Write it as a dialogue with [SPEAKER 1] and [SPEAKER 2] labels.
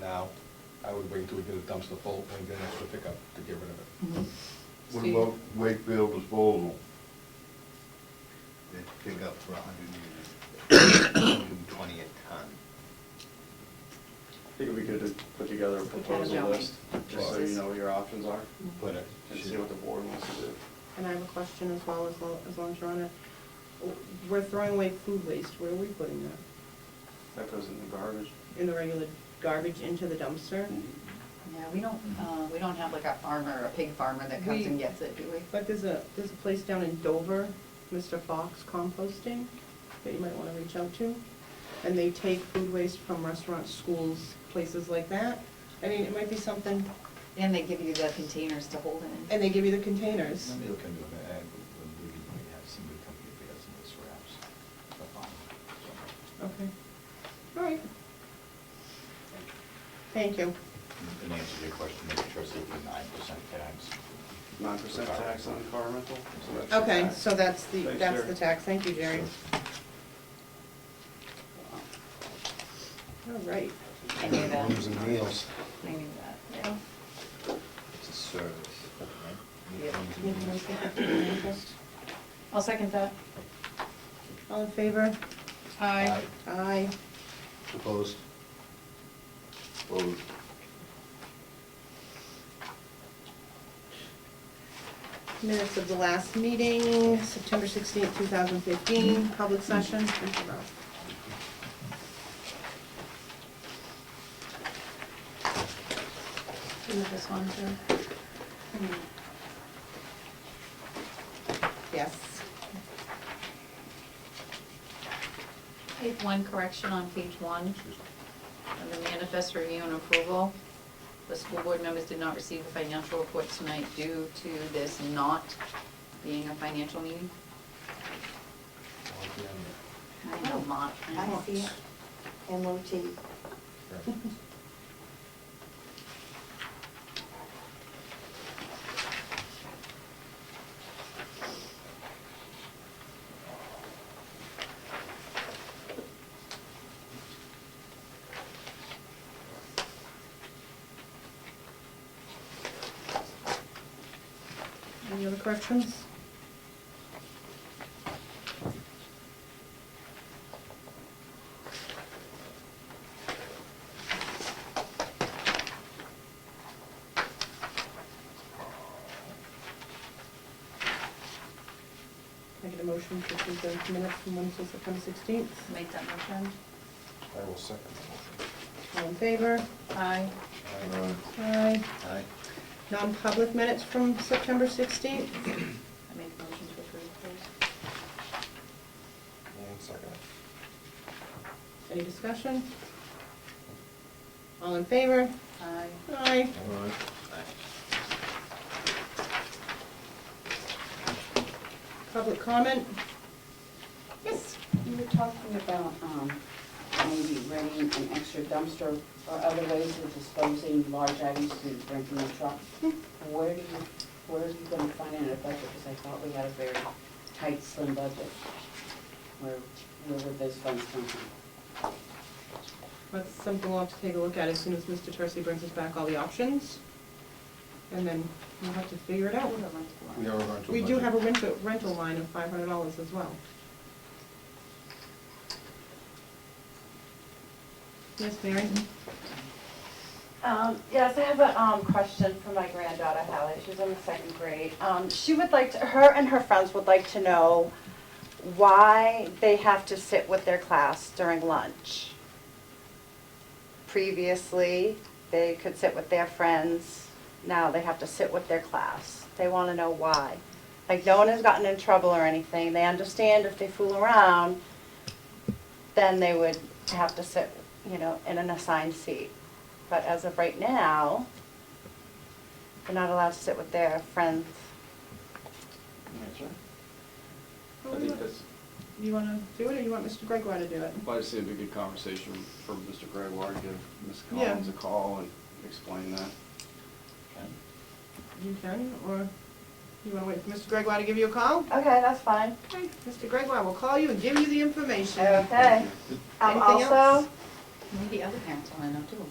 [SPEAKER 1] now, I would wait till we get a dumpster full and get an extra pickup to get rid of it.
[SPEAKER 2] Mhm.
[SPEAKER 3] What
[SPEAKER 2] Steve?
[SPEAKER 3] about Wakefield disposal? They pick up for a hundred and, hundred and twenty a ton.
[SPEAKER 4] I think we could put together a proposal
[SPEAKER 2] Proposal.
[SPEAKER 4] list, just so you know what your options are,
[SPEAKER 3] But it
[SPEAKER 4] and see
[SPEAKER 3] should,
[SPEAKER 4] what the board wants to do.
[SPEAKER 2] And I have a question as well, as long, as long as you're on it. We're throwing away food waste, where are we putting that?
[SPEAKER 4] That goes in the garbage.
[SPEAKER 2] In the regular garbage into the dumpster?
[SPEAKER 3] Mm-hmm.
[SPEAKER 5] Yeah, we don't, uh, we don't have like a farmer, a pig farmer that comes
[SPEAKER 2] We-
[SPEAKER 5] and gets it, do we?
[SPEAKER 2] But there's a, there's a place down in Dover, Mr. Fox Composting, that you might wanna reach out to. And they take food waste from restaurants, schools, places like that. I mean, it might be something,
[SPEAKER 5] And they give you the containers to hold it in.
[SPEAKER 2] and they give you the containers.
[SPEAKER 6] Maybe they'll come to an ag, when we might have somebody come get the estimates for apps. up on, so.
[SPEAKER 2] Okay, all right. Thank you.
[SPEAKER 6] And answer to your question, make sure it's the nine percent tax.
[SPEAKER 4] Nine percent tax on car rental. so that's your
[SPEAKER 2] Okay,
[SPEAKER 4] tax.
[SPEAKER 2] so that's the,
[SPEAKER 4] Thanks,
[SPEAKER 2] that's
[SPEAKER 4] Jerry.
[SPEAKER 2] the tax, thank you, Jerry. All right,
[SPEAKER 5] I knew that.
[SPEAKER 3] rooms and meals,
[SPEAKER 5] I knew that, yeah.
[SPEAKER 6] It's a service, right?
[SPEAKER 5] Yeah.
[SPEAKER 2] you have a nice day. Thank you, Nicholas.
[SPEAKER 5] I'll second that.
[SPEAKER 2] all in favor?
[SPEAKER 5] Aye.
[SPEAKER 2] Aye.
[SPEAKER 3] opposed? Opposed.
[SPEAKER 2] Minutes of the last meeting, September sixteenth, two thousand fifteen, public session.
[SPEAKER 4] Mm-hmm.
[SPEAKER 5] Do this one too.
[SPEAKER 2] Yes.
[SPEAKER 5] I have one correction on page one, on the manifest review and approval. The school board members did not receive the financial report tonight due to this not being a financial meeting.
[SPEAKER 1] I'll be on there.
[SPEAKER 5] I know, not.
[SPEAKER 7] I see it. MOT.
[SPEAKER 1] Right.
[SPEAKER 2] Mm-hmm. Any other corrections? Can I get a motion to approve the minutes from Wednesday, September sixteenth?
[SPEAKER 5] Make that motion.
[SPEAKER 1] I will second the
[SPEAKER 2] All in favor?
[SPEAKER 5] Aye.
[SPEAKER 1] motion.
[SPEAKER 3] Uh,
[SPEAKER 2] Aye.
[SPEAKER 3] Aye.
[SPEAKER 2] Non-public minutes from September sixteenth?
[SPEAKER 5] I make a motion to approve those.
[SPEAKER 1] And second it.
[SPEAKER 2] Any discussion? All in favor?
[SPEAKER 5] Aye.
[SPEAKER 2] Aye.
[SPEAKER 1] All right.
[SPEAKER 2] Public comment?
[SPEAKER 7] Yes, you were talking about, um, maybe renting an extra dumpster or other ways of disposing large items to bring from the truck. Where do you, where are you gonna find an budget? Because I thought we had a very tight, slim budget. Where, where would those funds come from?
[SPEAKER 2] That's something we'll have to take a look at as soon as Mr. Tursi brings us back all the options. And then we'll have to figure it
[SPEAKER 5] I
[SPEAKER 2] out.
[SPEAKER 5] would have liked to learn.
[SPEAKER 1] We are on to.
[SPEAKER 2] We do
[SPEAKER 1] budget.
[SPEAKER 2] have a rental, rental line of five hundred dollars as well. Yes, Mary?
[SPEAKER 4] Mm-hmm.
[SPEAKER 8] Um, yes, I have a, um, question for my granddaughter Hallie, she's in the second grade. Um, she would like to, her and her friends would like to know why they have to sit with their class during lunch. Previously, they could sit with their friends, now they have to sit with their class. They wanna know why. Like, no one has gotten in trouble or anything, they understand if they fool around, then they would have to sit, you know, in an assigned seat. But as of right now, they're not allowed to sit with their friends.
[SPEAKER 4] I think that's,
[SPEAKER 2] Oh, You wanna do it, or you want Mr. Gregoire to do it?
[SPEAKER 4] well, I'd say it'd be a good conversation for Mr. Gregoire, give Ms.
[SPEAKER 2] Yeah.
[SPEAKER 4] Collins a call and explain that.
[SPEAKER 2] You can, or you wanna wait for Mr. Gregoire to give you a call?
[SPEAKER 8] Okay, that's fine.
[SPEAKER 2] Okay, Mr. Gregoire will call you and give you the information.
[SPEAKER 8] Okay. Um,
[SPEAKER 2] Anything
[SPEAKER 8] also,
[SPEAKER 2] else?
[SPEAKER 5] Maybe other parents want to know too.